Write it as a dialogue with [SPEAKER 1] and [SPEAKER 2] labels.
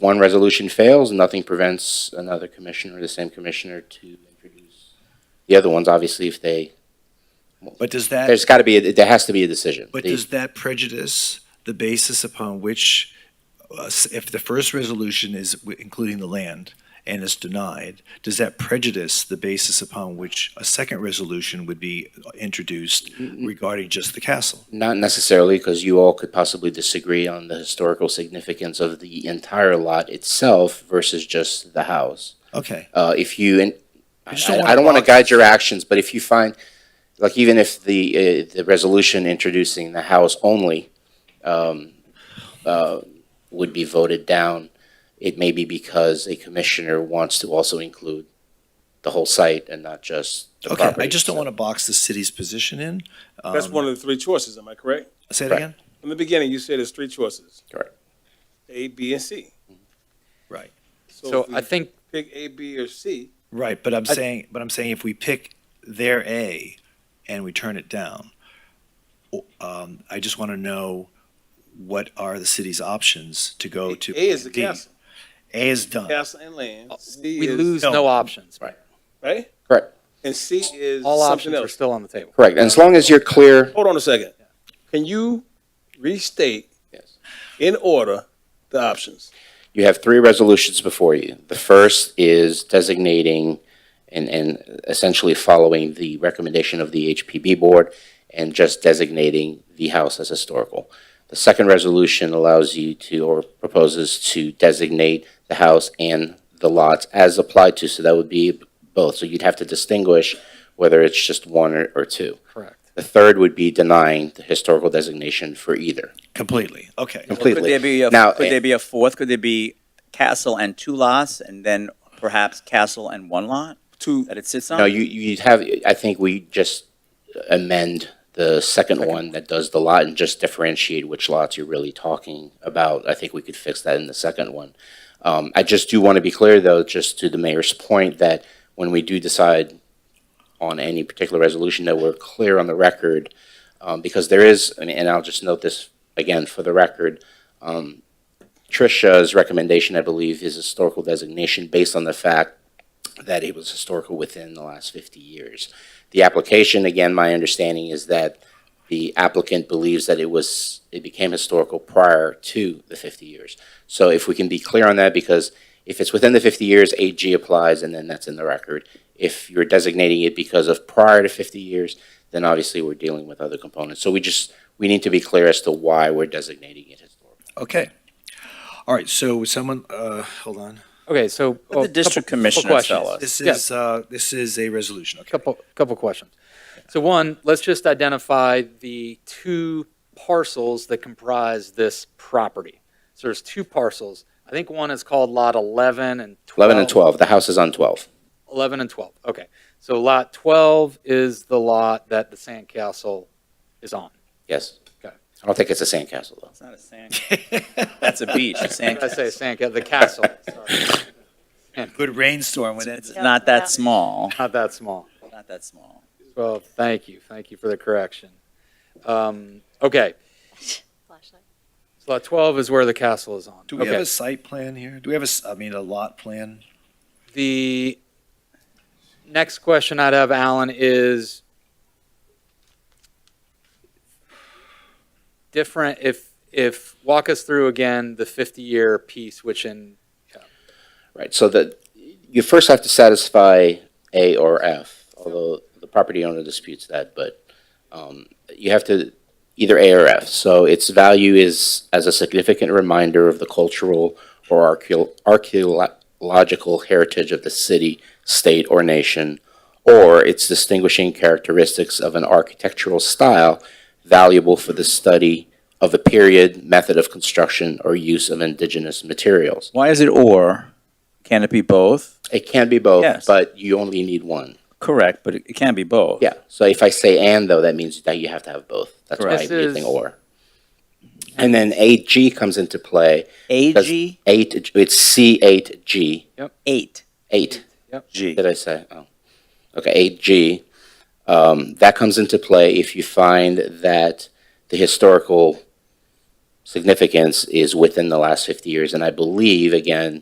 [SPEAKER 1] one resolution fails, nothing prevents another commissioner, the same commissioner, to introduce the other ones, obviously, if they,
[SPEAKER 2] But does that,
[SPEAKER 1] there's got to be, a- there has to be a decision.
[SPEAKER 2] but
[SPEAKER 1] The-
[SPEAKER 2] does that prejudice the basis upon which, uh, s- if the first resolution is w- including the land and is denied, does that prejudice the basis upon which a second resolution would be uh, introduced
[SPEAKER 1] Mm.
[SPEAKER 2] regarding just the castle?
[SPEAKER 1] Not necessarily, because you all could possibly disagree on the historical significance of the entire lot itself versus just the house.
[SPEAKER 2] Okay,
[SPEAKER 1] Uh, if you, and I,
[SPEAKER 2] just don't wanna
[SPEAKER 1] I don't want to
[SPEAKER 2] bog-
[SPEAKER 1] guide your actions, but if you find, like, even if the, uh, the resolution introducing the house only, um, uh, would be voted down, it may be because a commissioner wants to also include the whole site and not just the
[SPEAKER 2] okay, I
[SPEAKER 1] property.
[SPEAKER 2] just don't want to box the city's position in.
[SPEAKER 3] That's
[SPEAKER 2] Um,
[SPEAKER 3] one of the three choices, am I correct?
[SPEAKER 2] Say it
[SPEAKER 1] Correct.
[SPEAKER 2] again?
[SPEAKER 3] In the beginning, you said there's three choices.
[SPEAKER 1] Correct.
[SPEAKER 3] A, B, and C.
[SPEAKER 2] Right.
[SPEAKER 4] Mm-hmm. So
[SPEAKER 3] if we
[SPEAKER 4] I think,
[SPEAKER 3] Pick A, B, or C,
[SPEAKER 2] Right, but I'm
[SPEAKER 4] I-
[SPEAKER 2] saying, but I'm saying if we pick their A and we turn it down, o- um, I just want to know what are the city's options to go
[SPEAKER 4] Oh,
[SPEAKER 3] A
[SPEAKER 2] to.
[SPEAKER 3] is the
[SPEAKER 2] D.
[SPEAKER 3] castle,
[SPEAKER 2] A is done.
[SPEAKER 3] castle and land. C
[SPEAKER 4] Uh, we
[SPEAKER 3] is-
[SPEAKER 4] lose
[SPEAKER 2] No.
[SPEAKER 4] no options.
[SPEAKER 1] Right.
[SPEAKER 3] Right?
[SPEAKER 1] Correct.
[SPEAKER 3] And C is
[SPEAKER 4] All
[SPEAKER 3] something
[SPEAKER 4] options are
[SPEAKER 3] else.
[SPEAKER 4] still on the table.
[SPEAKER 1] Correct, and as long as you're clear,
[SPEAKER 3] Hold on a second. Can you restate
[SPEAKER 1] Yes.
[SPEAKER 3] in order the options?
[SPEAKER 1] You have three resolutions before you. The first is designating and, and essentially following the recommendation of the HPB board and just designating the house as historical. The second resolution allows you to, or proposes to designate the house and the lots as applied to, so that would be both. So you'd have to distinguish whether it's just one or, or two.
[SPEAKER 4] Correct.
[SPEAKER 1] The third would be denying the historical designation for either
[SPEAKER 2] Completely, okay.
[SPEAKER 5] Could
[SPEAKER 1] completely.
[SPEAKER 5] there be a,
[SPEAKER 1] Now,
[SPEAKER 5] could there be a fourth? Could there be castle and two lots, and then perhaps castle and one lot
[SPEAKER 3] Two,
[SPEAKER 5] that it sits on?
[SPEAKER 1] No, you, you'd have, I think we just amend the second one that does the lot and just differentiate which lots you're really talking about. I think we could fix that in the second one. Um, I just do want to be clear, though, just to the mayor's point, that when we do decide on any particular resolution, that we're clear on the record, um, because there is, and- and I'll just note this again for the record, um, Tricia's recommendation, I believe, is historical designation based on the fact that it was historical within the last 50 years. The application, again, my understanding is that the applicant believes that it was, it became historical prior to the 50 years. So if we can be clear on that, because if it's within the 50 years, 8G applies, and then that's in the record. If you're designating it because of prior to 50 years, then obviously we're dealing with other components. So we just, we need to be clear as to why we're designating it historical.
[SPEAKER 2] Okay. All right, so would someone, uh, hold on.
[SPEAKER 4] Okay, so.
[SPEAKER 5] the
[SPEAKER 4] well,
[SPEAKER 5] district
[SPEAKER 4] couple- couple
[SPEAKER 5] commissioners
[SPEAKER 4] questions.
[SPEAKER 5] tell us.
[SPEAKER 2] This
[SPEAKER 4] Yeah.
[SPEAKER 2] is, uh, this is a resolution, okay.
[SPEAKER 4] Couple, couple questions. So one, let's just identify the two parcels that comprise this property. So there's two parcels. I think one is called Lot 11 and 12.
[SPEAKER 1] 11 and 12, the house is on 12.
[SPEAKER 4] 11 and 12, okay. So Lot 12 is the lot that the sandcastle is on.
[SPEAKER 1] Yes.
[SPEAKER 4] Got it.
[SPEAKER 1] I don't think it's a sandcastle, though.
[SPEAKER 5] It's not a sand. That's a beach. A sand.
[SPEAKER 4] Did I say sandcastle? The castle, sorry.
[SPEAKER 2] Good rainstorm when
[SPEAKER 5] It's
[SPEAKER 2] it's,
[SPEAKER 5] not that small.
[SPEAKER 4] Not that small.
[SPEAKER 5] Not that small.
[SPEAKER 4] Well, thank you. Thank you for the correction. Um, okay,
[SPEAKER 6] Flashlight.
[SPEAKER 4] so lot 12 is where the castle is on.
[SPEAKER 2] do we have
[SPEAKER 4] Okay.
[SPEAKER 2] a site plan here? Do we have a, s- I mean, a lot plan?
[SPEAKER 4] The next question I'd have, Alan, is different, if, if, walk us through again the 50-year piece, which in,
[SPEAKER 1] Right, so that, you first have to satisfy A or F, although the property owner disputes that, but um, you have to, either A or F. So its value is as a significant reminder of the cultural or archeo- archaeological heritage of the city, state, or nation, or its distinguishing characteristics of an architectural style valuable for the study of a period, method of construction, or use of indigenous materials.
[SPEAKER 5] Why is it or? Can it be both?
[SPEAKER 1] It can be both,
[SPEAKER 5] Yes.
[SPEAKER 1] but you only need one.
[SPEAKER 5] Correct, but it it can be both.
[SPEAKER 1] Yeah, so if I say and though, that means that you have to have both. That's why I'm
[SPEAKER 4] Correct. This
[SPEAKER 1] using
[SPEAKER 4] is-
[SPEAKER 1] or. And then eight G comes into play.
[SPEAKER 5] AG
[SPEAKER 1] Eight, it's C eight G,
[SPEAKER 5] eight
[SPEAKER 1] eight,
[SPEAKER 5] G.
[SPEAKER 1] did I say? Oh, okay, eight G. Um, that comes into play if you find that the historical significance is within the last 50 years. And I believe, again,